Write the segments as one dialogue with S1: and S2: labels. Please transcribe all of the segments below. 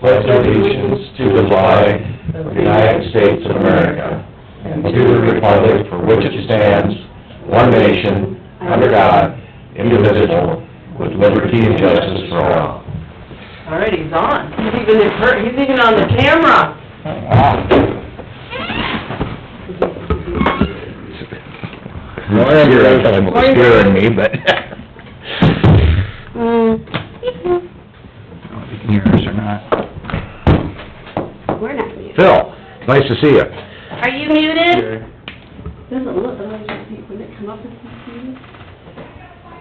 S1: pledge allegiance to the flag of the United States of America and to the republic for which it stands, one nation, under God, indivisible, with liberty and justice for all.
S2: Alright, he's on. He's even, in per- he's even on the camera.
S1: Morning, Bruce.
S2: Morning.
S1: Scaring me, but. Yours or not.
S3: We're not muted.
S1: Phil, nice to see you.
S3: Are you muted? Doesn't look, oh, I just think, would it come up as muted?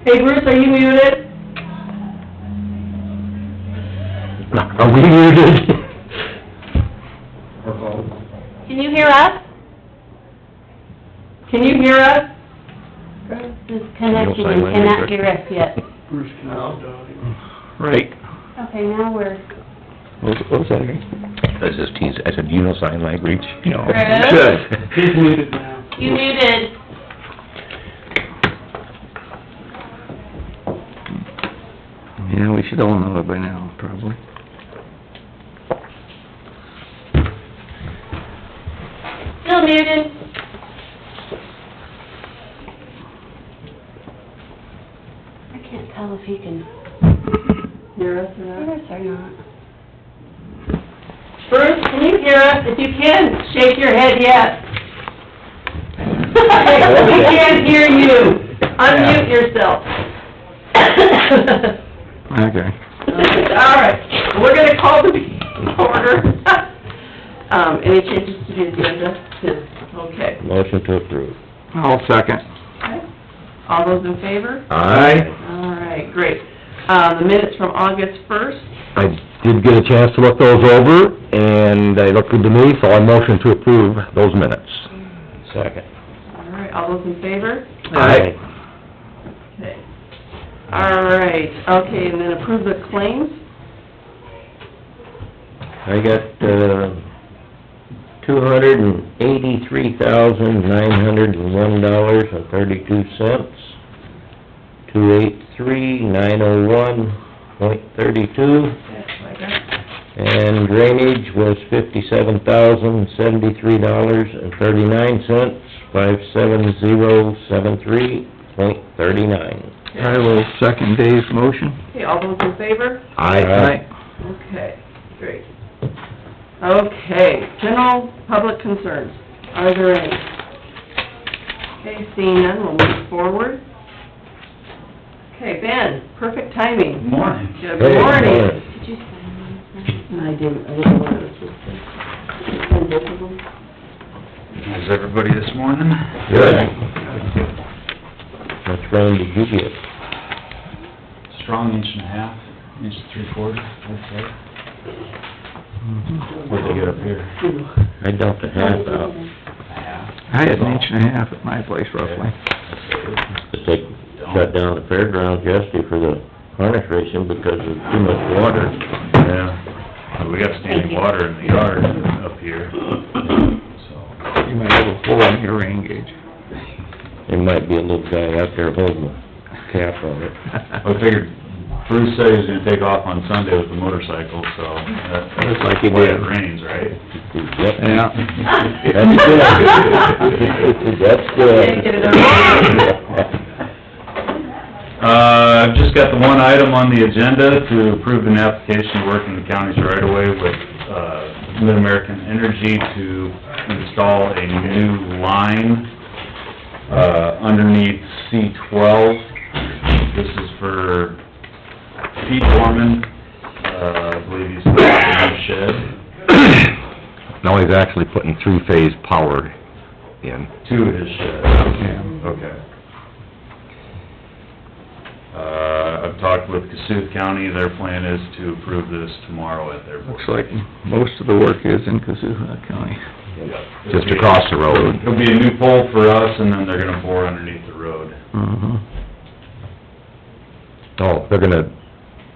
S2: Hey Bruce, are you muted?
S1: Are we muted?
S3: Can you hear us?
S2: Can you hear us?
S3: This connection
S1: sign language,
S3: cannot
S1: right?
S3: hear us yet.
S1: Right.
S3: Okay, now we're,
S1: What was that again? I was just teasing, I said, you know sign language? No.
S3: Chris?
S4: He's muted now.
S3: you muted.
S1: Yeah, we should all know it by now, probably.
S3: Still muted. I can't tell if he can
S2: Hear us or
S3: hear
S2: not?
S3: us or not.
S2: Bruce, can you hear us? If you can, shake your head yes. We can't hear you. Unmute yourself.
S1: Okay.
S2: Alright, we're gonna call the meeting to order. Um, any changes to the agenda? Okay.
S1: Motion to approve. I'll second.
S2: All those in favor?
S1: Aye.
S2: All right, great. Uh, the minutes from August first,
S1: I did get a chance to look those over, and they look good to me, so I motion to approve those minutes. Second.
S2: all right, all those in favor?
S1: Aye.
S2: Okay. All right, okay, and then approve the claims?
S1: I got, uh, two hundred and eighty-three thousand, nine hundred and one dollars and thirty-two cents. Two eight three, nine oh one, point thirty-two.
S2: That's what I got.
S1: And drainage was fifty-seven thousand, seventy-three dollars and thirty-nine cents, five seven zero seven three, point thirty-nine.
S5: I will second Dave's motion.
S2: Okay, all those in favor?
S1: Aye.
S2: Okay, great. Okay, general public concerns, are there any? Okay, seeing none, we'll move forward. Okay, Ben, perfect timing.
S4: Morning.
S2: Good
S1: Hey,
S2: morning.
S3: Did you sign one?
S2: I didn't, I didn't want to... Send both of them?
S4: How's everybody this morning?
S1: Good. Much rain did you get?
S4: Strong inch and a half, inch and three quarter, I'd say. What'd you get up here?
S1: I dumped a half out.
S4: A half?
S5: I had an inch and a half at my place roughly.
S1: It's like shut down the fairgrounds yesterday for the harness racing because of too much water.
S4: Yeah, we got standing water in the yard up here, so.
S5: You might have a hole in your rain gauge.
S1: There might be a little guy out there holding a cap on it.
S4: I figured Bruce said he was gonna take off on Sunday with the motorcycle, so that-
S1: Looks
S4: that's
S1: like he
S4: why it
S1: did.
S4: rains, right?
S1: Yep.
S5: Yeah,
S1: That's good. That's good.
S2: Yeah, get it over
S4: Uh, I've just got the one item on the agenda to approve an application to work in the county's right of way with, uh, Mid-American Energy to install a new line, uh, underneath C twelve. This is for Pete Dorman, uh, I believe he's putting in a shed.
S1: Now he's actually putting three-phase power in.
S4: To his shed.
S5: Yeah.
S4: Okay. Uh, I've talked with Cassuth County, their plan is to approve this tomorrow at their board.
S5: looks like most of the work is in Kazuha County.
S4: Yeah.
S1: Just across the road.
S4: It'll be a new pole for us, and then they're gonna bore underneath the road.
S1: Mm-hmm.
S5: Mhm.
S1: Oh, they're gonna,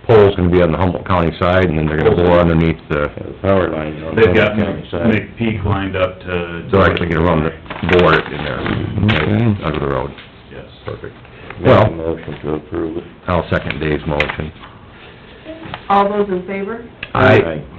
S1: pole's gonna be on the Humboldt County side, and then they're gonna bore underneath the... Power line on
S4: They've got McPeak lined up to...
S1: Oh, They're actually gonna run the bore in there,
S5: Okay.
S1: under the road.
S4: Yes.
S1: Perfect. Well... Motion to approve it. I'll second Dave's motion.
S2: All those in favor?
S1: Aye.